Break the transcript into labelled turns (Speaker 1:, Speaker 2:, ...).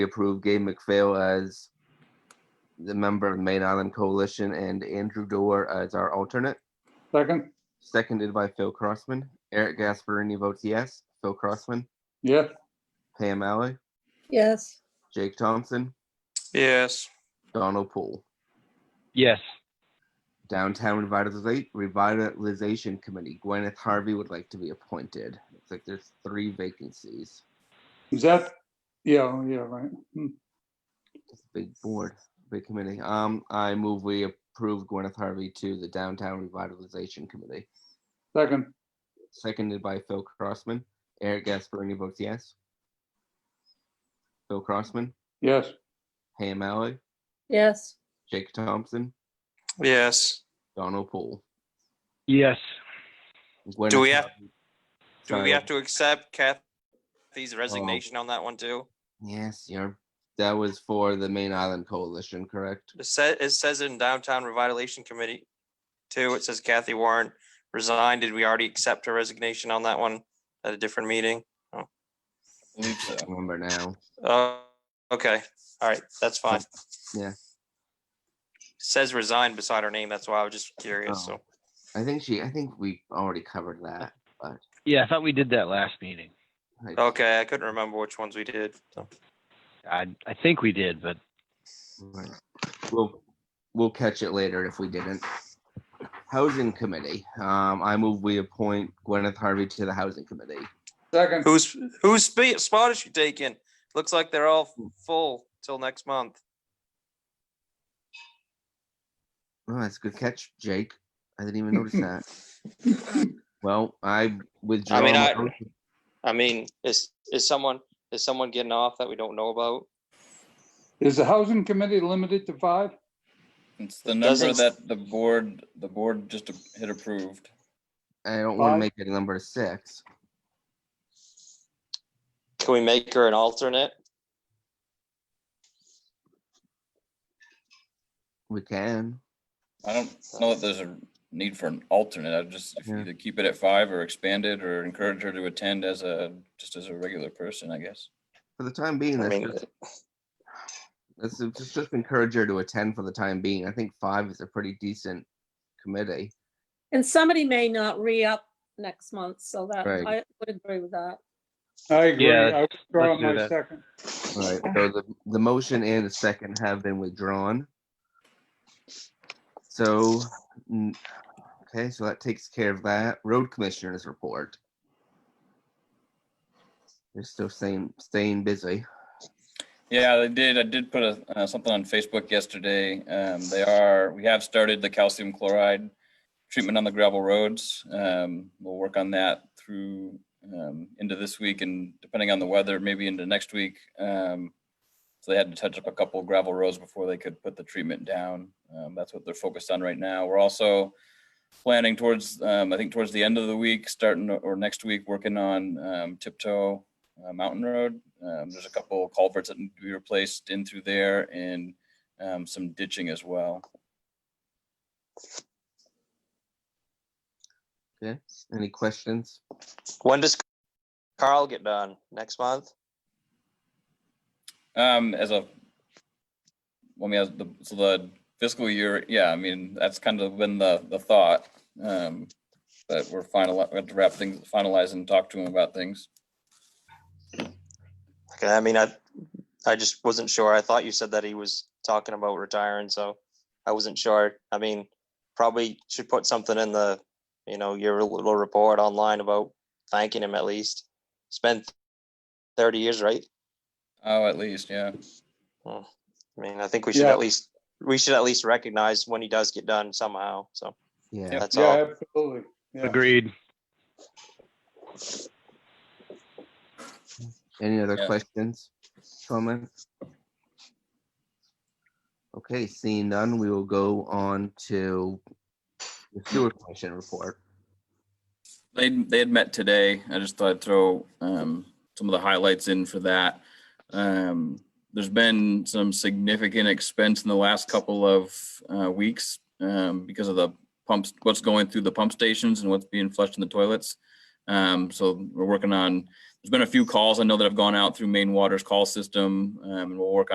Speaker 1: approve Gabe McPhail as the member of the Main Island Coalition and Andrew Dorr as our alternate,
Speaker 2: Second,
Speaker 1: seconded by Phil Crossman. Eric Gasparini votes yes. Phil Crossman,
Speaker 2: yes,
Speaker 1: Pam Alley,
Speaker 3: yes,
Speaker 1: Jake Thompson,
Speaker 4: Yes.
Speaker 1: Donald Poole.
Speaker 5: Yes.
Speaker 1: Downtown Revitaliza- Revitalization Committee, Gwyneth Harvey would like to be appointed. It's like there's three vacancies.
Speaker 2: is that, yeah, yeah, right. Hmm.
Speaker 1: It's a big board, big committee. Um, I move we approve Gwyneth Harvey to the Downtown Revitalization Committee.
Speaker 2: Second,
Speaker 1: Seconded by Phil Crossman. Eric Gasparini votes yes. Phil Crossman,
Speaker 2: yes,
Speaker 1: Pam Alley,
Speaker 3: yes,
Speaker 1: Jake Thompson,
Speaker 4: Yes.
Speaker 1: Donald Poole.
Speaker 5: Yes.
Speaker 4: Do we
Speaker 1: Gwyneth
Speaker 4: have-
Speaker 1: Harvey-
Speaker 4: Do we
Speaker 1: Sorry.
Speaker 4: have to accept Kathy's resignation on that one too?
Speaker 1: Yes, you're, that was for the Main Island Coalition, correct?
Speaker 4: It says, it says in downtown revitalization committee too, it says Kathy Warren resigned. Did we already accept her resignation on that one at a different meeting?
Speaker 1: I Remember now.
Speaker 4: Oh, okay. All right, that's fine.
Speaker 1: Yeah.
Speaker 4: Says resigned beside her name. That's why I was just curious.
Speaker 1: Oh.
Speaker 4: So,
Speaker 1: I think she, I think we already covered that.
Speaker 5: Yeah, I thought we did that last meeting.
Speaker 1: Like,
Speaker 4: okay, I couldn't remember which ones we did. so.
Speaker 5: I I think we did, but
Speaker 1: right. We'll, we'll catch it later if we didn't. Housing Committee, um, I move we appoint Gwyneth Harvey to the Housing Committee.
Speaker 2: second,
Speaker 4: Who's, whose spe- spot is she taking? Looks like they're all
Speaker 1: Hmm.
Speaker 4: full till next month.
Speaker 1: Oh, that's a good catch, Jake. I didn't even notice that. Well, I withdraw.
Speaker 4: mean,
Speaker 1: my
Speaker 4: I-
Speaker 1: motion.
Speaker 4: I mean, is, is someone, is someone getting off that we don't know about?
Speaker 2: is the housing committee limited to five?
Speaker 6: It's the number
Speaker 4: Doesn't-
Speaker 6: that the board, the board just a- hit approved.
Speaker 1: I don't want to
Speaker 2: Five.
Speaker 1: make it number six.
Speaker 4: Can we make her an alternate?
Speaker 1: We can.
Speaker 6: I don't know that there's a need for an alternate. I just if you
Speaker 1: Yeah.
Speaker 6: either keep it at five or expand it or encourage her to attend as a, just as a regular person, I guess.
Speaker 1: For the time being,
Speaker 4: I
Speaker 1: that's
Speaker 4: mean,
Speaker 1: just, that's just, just encourage her to attend for the time being. I think five is a pretty decent committee.
Speaker 3: and somebody may not re-up next month, so that,
Speaker 1: Right.
Speaker 3: I would agree with that.
Speaker 2: I agree,
Speaker 5: Yeah,
Speaker 2: I withdraw
Speaker 5: let's do
Speaker 2: my
Speaker 5: that.
Speaker 2: second,
Speaker 1: All right, so the, the motion and the second have been withdrawn. So, mm, okay, so that takes care of that. Road Commissioners report. They're still staying, staying busy.
Speaker 6: Yeah, they did. I did put a, uh, something on Facebook yesterday. Um, they are, we have started the calcium chloride treatment on the gravel roads. Um, we'll work on that through, um, into this week and depending on the weather, maybe into next week. Um, so they had to touch up a couple gravel roads before they could put the treatment down. Um, that's what they're focused on right now. We're also planning towards, um, I think towards the end of the week, starting or next week, working on, um, tiptoe, uh, Mountain Road. Um, there's a couple culverts that need to be replaced in through there and um, some ditching as well.
Speaker 1: Okay, any questions?
Speaker 4: when does Carl get done? Next month?
Speaker 6: Um, as a, well, I mean, as the, so the fiscal year, yeah, I mean, that's kind of been the, the thought. Um, but we're final, we have to wrap things, finalize and talk to him about things.
Speaker 4: Okay, I mean, I, I just wasn't sure. I thought you said that he was talking about retiring, so I wasn't sure. I mean, probably should put something in the, you know, your little report online about thanking him at least. It's been thirty years, right?
Speaker 6: Oh, at least, yeah.
Speaker 4: I mean, I think we should
Speaker 2: Yeah.
Speaker 4: at least, we should at least recognize when he does get done somehow, so
Speaker 1: Yeah,
Speaker 4: that's all.
Speaker 2: yeah, absolutely. Yeah.
Speaker 5: agreed.
Speaker 1: any other
Speaker 6: Yeah.
Speaker 1: questions, comments? Okay, seeing none, we will go on to the sewer commission report.
Speaker 6: They, they had met today. I just thought I'd throw um, some of the highlights in for that. Um, there's been some significant expense in the last couple of uh, weeks um, because of the pumps, what's going through the pump stations and what's being flushed in the toilets. Um, so we're working on There's been a few calls I know that have gone out through Maine Water's call system, um, and we'll work